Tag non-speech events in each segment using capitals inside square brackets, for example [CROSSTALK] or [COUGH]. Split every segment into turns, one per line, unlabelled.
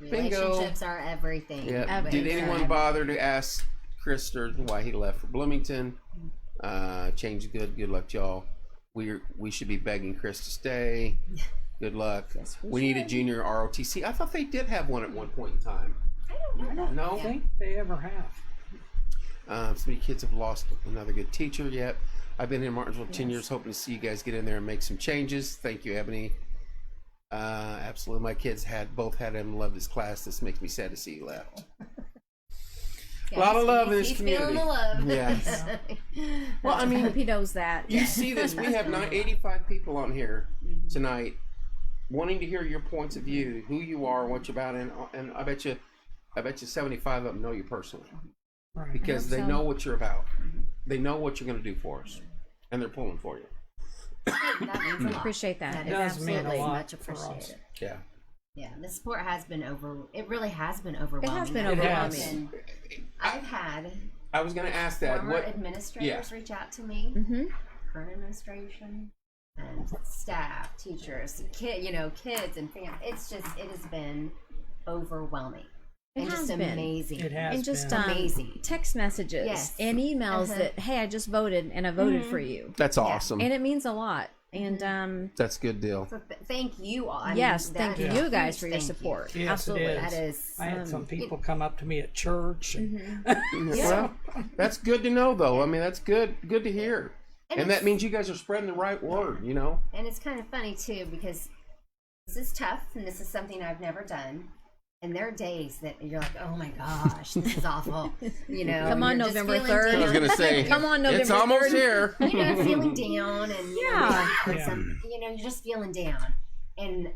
Bingo.
Relationships are everything. uh,
Yeah.
Everything.
Did anyone bother to ask Chris Sturgeon why he left for Bloomington? Uh, change is good. Good luck, y'all. We we should be begging Chris to
[LAUGHS]
stay. Good luck.
Yes, we
we need a
should.
junior ROTC. I thought they did have one at one point in time.
I don't
No?
think they ever have.
Um, so many kids have lost another good teacher yet. I've been in Martinsville 10
Yes.
years, hoping to see you guys get in there and make some changes. Thank you, Ebony. Uh, absolutely. My kids had both had him love his class. This makes me sad to see you left.
Yeah,
Lot of
he's-
love in
he's-
this
he's feeling the love. [LAUGHS]
Yes. Well, I
I hope
mean,
he knows that.
you see this. We have nine, 85 people on here
Mm-hmm.
tonight wanting to hear your points of view, who you are, what you're about, and, and I bet you, I bet you 75 of them know you personally.
Right.
because
hope
they
so. Mm-hmm.
know what you're about. They know what you're going to do for us, and they're pulling for you.
that means a
We
lot.
appreciate that.
That
It
is
does mean a
absolutely
lot
much
for us.
appreciated.
Yeah.
Yeah, the support has been over. It really has been overwhelming.
been
I've
overwhelming.
been- I've had
I was going to ask that.
former
What?
administrators reach out to me,
Mm-hmm.
current administration, and staff, teachers, kid, you know, kids and fam. It's just it has been overwhelming
It
and
has
just
been.
amazing.
It has
And just
been.
um,
Amazing.
text messages
Yes.
and emails
Uh-huh. Mm-hmm.
that hey, I just voted and I voted for you,
That's awesome.
and it means a lot. And um,
That's good
[LAUGHS]
deal.
So th- thank you all. I mean,
yes,
that
thank
is
you
a
guys
huge
for your
thank you.
support.
Yes, it
Absolutely. um,
is.
That is
I had some people come up to me at church. and-
Well, that's good to know, though. I mean, that's good. Good to hear.
And
And that
it's-
means you guys are spreading the right word. You know.
and it's kind of funny too because this is tough and this is something I've never done. And there are days that you're like, oh my gosh, this is awful.
[LAUGHS]
You know,
Come on,
you're just
November
feeling
3rd.
down.
I was
say,
[LAUGHS] Come on, November
It's almost here.
[LAUGHS]
you know, feeling down and you know,
Yeah.
maybe put some- you know, you're just feeling down, and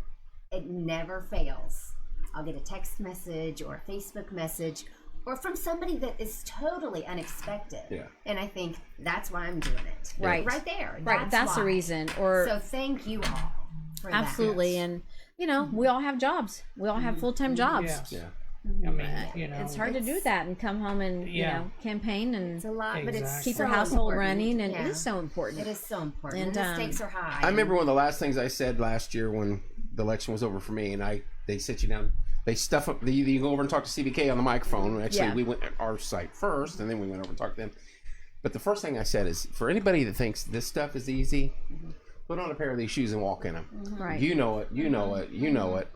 it never fails. I'll get a text message or a Facebook message, or from somebody that is totally unexpected.
Yeah.
And I think that's why I'm doing it.
Right.
Right there.
Right, that's, the
why.
reason. Or
So thank you all. For that.
absolutely, and you know,
Mm-hmm.
we all have jobs. We all have full time jobs.
Yes.
Yeah.
I mean, you know.
Mm-hmm. It's hard to do that and come home and
Yeah.
you know campaign and
It's a lot, but it's
Exactly.
keep your
so
household
important.
running, and
Yeah.
it is so important.
It is so important.
And,
And, the
um,
stakes are high.
I remember one of the last things I said last year when the election was over for me, and I they sit you down. They stuff up. They, you go over and talk to CBK on the microphone. Actually,
Yeah.
we went at our site first, and then we went over and talked to them. But the first thing I said is, for anybody that thinks this stuff is easy, put on a pair of these shoes and walk in them.
Right.
You know it. You know it. You know it.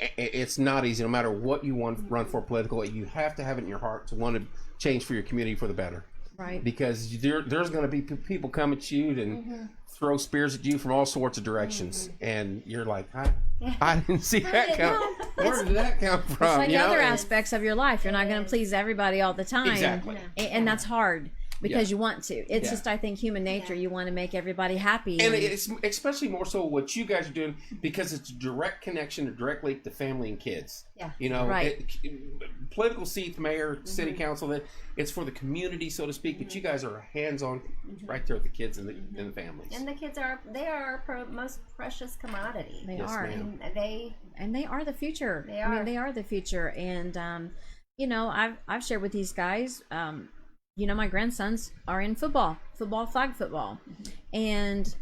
I- I- It's not easy, no matter what you want run for political. You have to have it in your heart to want to change for your community for the better
right.
because there, there's going to be p- people come at you and
Mm-hmm.
throw spears at you from all sorts of directions, and you're like,
[LAUGHS]
I, I didn't see that come. Where did that come from?
It's like
you know?
other aspects of your life. You're not going to please everybody all the time.
Exactly.
A- And, that's hard because you want to. It's
Yeah.
just, I think, human nature. You want to make everybody happy.
And it's especially more so what you guys are doing because it's a direct connection or direct link to family and kids.
Yeah.
You know,
Right. Mm-hmm.
it- political seats, mayor, city council, that it's for the community, so to speak, but you guys are hands on
Mm-hmm.
right there with the kids and the, and the families.
And the kids are they are our pro- most precious commodity.
they
Yes,
are.
ma'am.
And
[LAUGHS]
they
and they are the future.
They
I
are.
mean, they are the future. And um, you know, I've I've shared with these guys. Um, you know, my grandsons are in football, football, flag football,
Mm-hmm.
and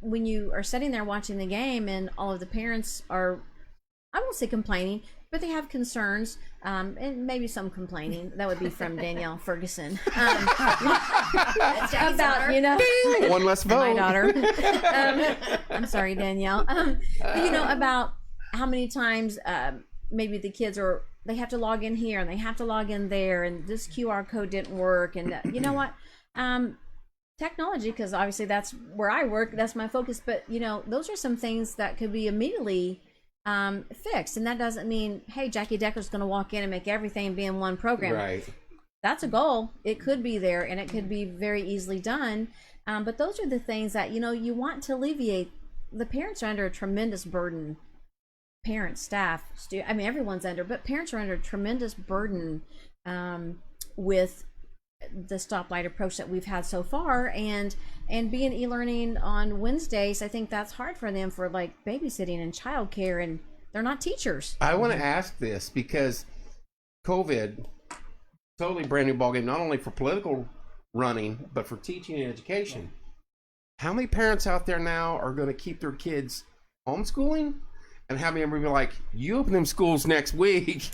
when you are sitting there watching the game, and all of the parents are, I won't say complaining, but they have concerns, um, and maybe some complaining. That would
[LAUGHS]
be from Danielle Ferguson um, about you know
One less vote. Uh. [LAUGHS]
my daughter. um, I'm sorry, Danielle. Um, but you know about how many times um, maybe the kids are they have to log in here and they have to log in there, and this QR code didn't work, and that- you know what? Um, technology, because obviously that's where I work, that's my focus. But you know, those are some things that could be immediately um, fixed, and that doesn't mean hey, Jackie Decker's going to walk in and make everything be in one program
Right.
that's a goal. It could be there and it could be very easily done. Um, but those are the things that, you know, you want to alleviate. The parents are under a tremendous burden. Parents, staff, stu- I mean, everyone's under, but parents are under a tremendous burden um, with the stoplight approach that we've had so far and and being e-learning on wednesdays i think that's hard for them for like babysitting and childcare and they're not teachers
I want to ask this because COVID, totally brand new ballgame, not only for political running, but for teaching and education. How many parents out there now are going to keep their kids homeschooling? and have me be like, "You open them schools next week." [LAUGHS]